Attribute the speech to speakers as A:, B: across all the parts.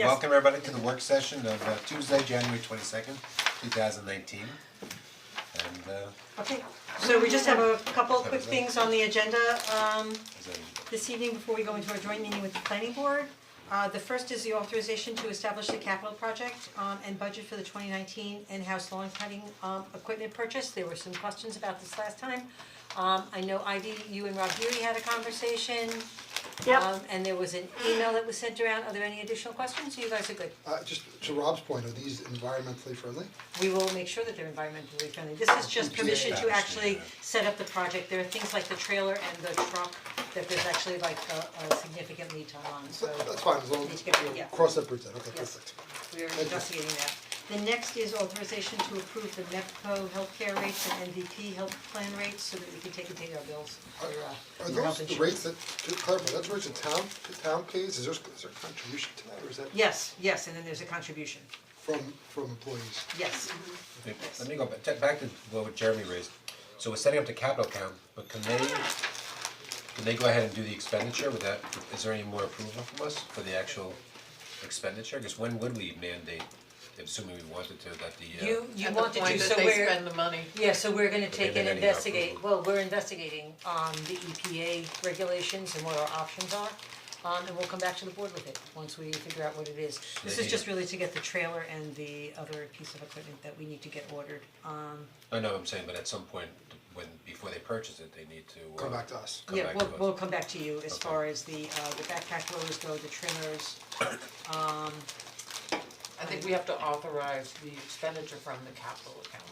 A: Yes.
B: Welcome everybody to the work session of uh, Tuesday, January twenty second, two thousand nineteen. And uh,
A: Okay, so we just have a couple of quick things on the agenda um
B: is that-
A: this evening before we go into our joint meeting with the planning board. Uh the first is the authorization to establish the capital project um and budget for the twenty nineteen in-house lawn cutting um equipment purchase. There were some questions about this last time. Um I know Ivy, you and Rob Beauty had a conversation. Um and there was an email that was sent around. Are there any additional questions? You guys are good.
C: Uh, just to Rob's point, are these environmentally friendly?
A: we will make sure that they're environmentally friendly. This is just permission to actually set up the project. There are things like the trailer and the truck that there's actually like a a significant lead time on, so
C: So that's fine, as long
A: Need to
C: as,
A: get rid-
C: you know,
A: yeah.
C: cross that bridge then, okay,
A: Yes.
C: perfect.
A: we're investigating that. The next is authorization to approve the MEPCO healthcare rates and MVP health plan rates so that we can take and pay our bills for uh
C: Are
A: for
C: those
A: health
C: the
A: insurance.
C: rates that, to clarify, that's rates the town, the town pays, is there, is there a contribution to that, or is that
A: Yes, yes, and then there's a contribution,
C: from, from employees?
A: yes.
B: wait, Let me go back, check back to what Jeremy raised. So we're setting up the capital account, but can they, can they go ahead and do the expenditure with that? Is there any more approval from us for the actual expenditure? Because when would we mandate, assuming we wanted to, that the uh.
A: You you want to do,
D: At
A: so
D: the point that they
A: we're,
D: spend the money.
A: Yeah, so we're gonna take
B: they didn't
A: and
B: have
A: investigate,
B: approval.
A: well, we're investigating um the EPA regulations and what our options are. Um and we'll come back to the board with it, once we figure out what it is. This is
B: Maybe-
A: just really to get the trailer and the other piece of equipment that we need to get ordered. Um
B: I know what I'm saying, but at some point, when, before they purchase it, they need to uh.
C: Come back to us.
B: Come
A: yeah,
B: back to
A: we'll
B: us.
A: we'll come back to you as
B: Okay.
A: far as the uh the backpack loaders go, the trimmers.
D: I think we have to authorize the expenditure from the capital account.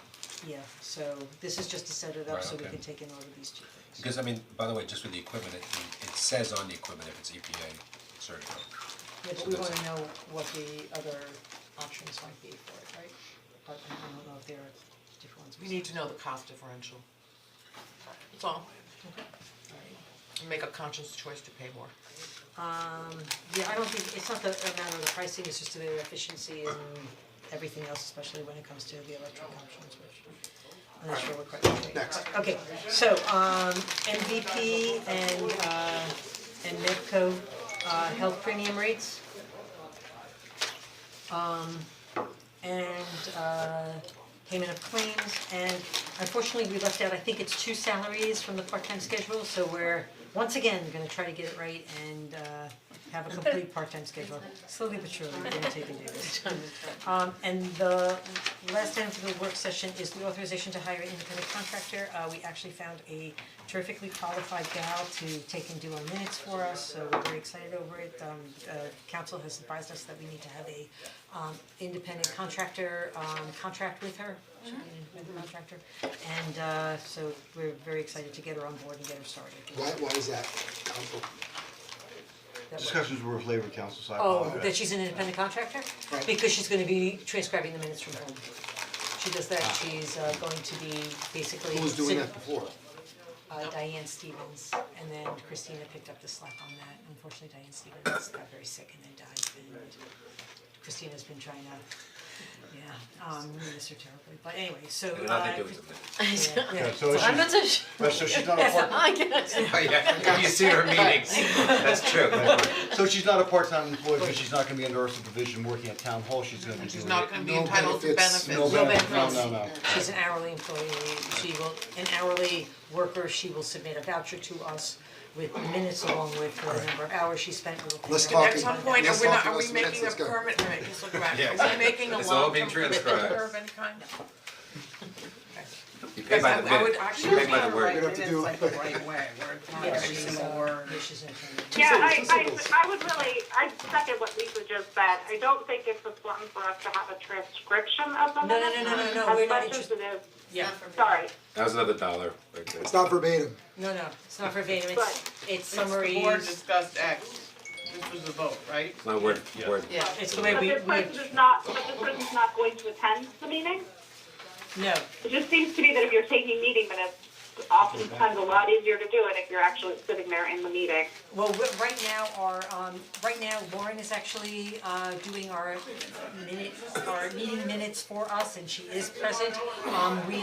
A: Yeah, so this is just to set it up
B: Right,
A: so we
B: okay.
A: can take and order these two things.
B: Because I mean, by the way, just with the equipment, it it says on the equipment if it's EPA certified.
A: Yeah, but
B: So
A: we
B: that's-
A: wanna know what the other options might be for it, right? But I don't know if there are different ones.
D: We need to know the cost differential. That's all. And Make a conscious choice to pay more.
A: Yeah, I don't think, it's not the amount of the pricing, it's just the efficiency and everything else, especially when it comes to the electric options, which I'm not sure what quite
C: Next.
A: Okay, so um MVP and uh and Medco uh health premium rates. Um and uh payment of claims and unfortunately we left out, I think it's two salaries from the part-time schedule, so we're once again gonna try to get it right and uh have a complete part-time schedule. Slowly but surely, we're gonna take and do this. Um and the last item for the work session is the authorization to hire an independent contractor. Uh we actually found a terrifically qualified gal to take and do our minutes for us, so we're very excited over it. Um uh council has advised us that we need to have a um independent contractor um contract with her. She'll be an independent contractor. And uh so we're very excited to get her on board and get her started.
C: Why, why is that, council?
A: That works.
E: Discussions were with labor council, so I
A: Oh,
E: apologize.
A: that she's an independent contractor?
C: Right.
A: Because she's gonna be transcribing the minutes from home. She does that, she's uh, going to be basically.
C: Who was doing
A: sit-
C: that before?
A: Uh, Diane Stevens, and then Christina picked up the slack on that. Unfortunately, Diane Stevens got very sick and then died, and Christina's been trying to, yeah, um, we miss her terribly. But anyway, so.
B: And I think
A: uh,
B: it was a minute.
A: yeah, yeah.
E: Okay, So
F: I'm
E: she's,
F: not so sure.
E: but so she's not a part,
F: I guess.
B: Oh yeah, you see her meetings, that's true.
E: so she's not a part-time employee, but she's not gonna be under our supervision working at town hall, she's gonna be doing
D: She's not gonna be
C: no
D: entitled to
C: benefits,
D: benefits.
E: No benefit, no, no, no.
A: She's an hourly employee, she will, an hourly worker, she will submit a voucher to us with minutes along with the number of hours she spent with.
C: Let's
A: the-
C: talk
D: At some point, are
C: Let's
D: we not,
C: talk
D: are
C: about
D: we
C: some
D: making a
C: minutes, let's go.
D: permit, wait, just look around.
B: Yeah,
D: are we making a
B: it's all
D: long-term
B: being
D: commitment to
B: transcribed.
D: her of any kind?
B: You pay by the
D: Because I- I would
B: minute,
D: actually
B: you pay by the
C: We
B: word.
C: don't have to
D: It's
C: do,
D: like the right way, where it's not
A: Yeah,
D: every
A: she's,
D: single
A: uh,
D: word.
A: yeah, she's an attorney.
G: Yeah, I,
C: Two seconds.
G: I, I would really, I second what Lisa just said. I don't think it's important for us to have a transcription of the
A: no,
G: minutes.
A: no, no, no, we're not
G: As much as
A: interested-
G: it is,
A: Yeah,
G: sorry,
B: That was another dollar right there.
C: it's not verbatim,
A: no, no, it's not verbatim, it's,
G: Right.
A: it's
D: It's the board
A: summaries,
D: discussed X, this was the vote, right?
B: My word, word.
D: Yeah.
A: it's the way
G: but
A: we,
G: this person
A: we,
G: is not, but this person's not going to attend the meeting.
A: no,
G: It just seems to me that if you're taking meeting minutes, oftentimes a lot easier to do it if you're actually sitting there in the meeting.
A: well, we- right now, our, um, right now Lauren is actually, uh, doing our minute, our meeting minutes for us, and she is present. Um, we